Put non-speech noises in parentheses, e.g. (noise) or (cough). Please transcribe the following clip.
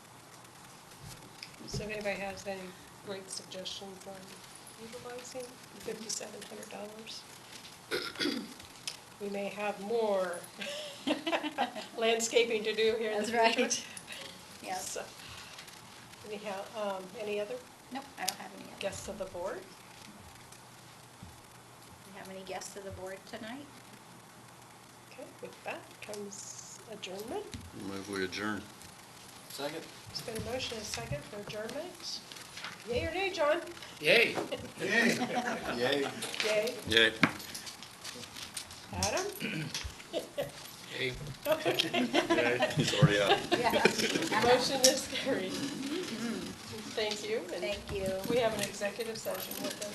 So if anybody has any great suggestions on utilizing fifty-seven hundred dollars? We may have (laughs) more landscaping to do here in the That's right. future. (laughs) Yes. So, Anyhow, um, any other Nope, I don't have any. other- guests of the board? You have any guests of the board tonight? Okay, with that comes adjournment. Move we adjourn. Second? It's been a motion and a second for adjournment. Yay or nay, John? Yay. Yay. Yay. Yay. Adam? Yay. Okay. He's already out. (laughs) Yeah. Motion is carried. Thank you. and Mm-hmm. Thank you. We have an executive session with us.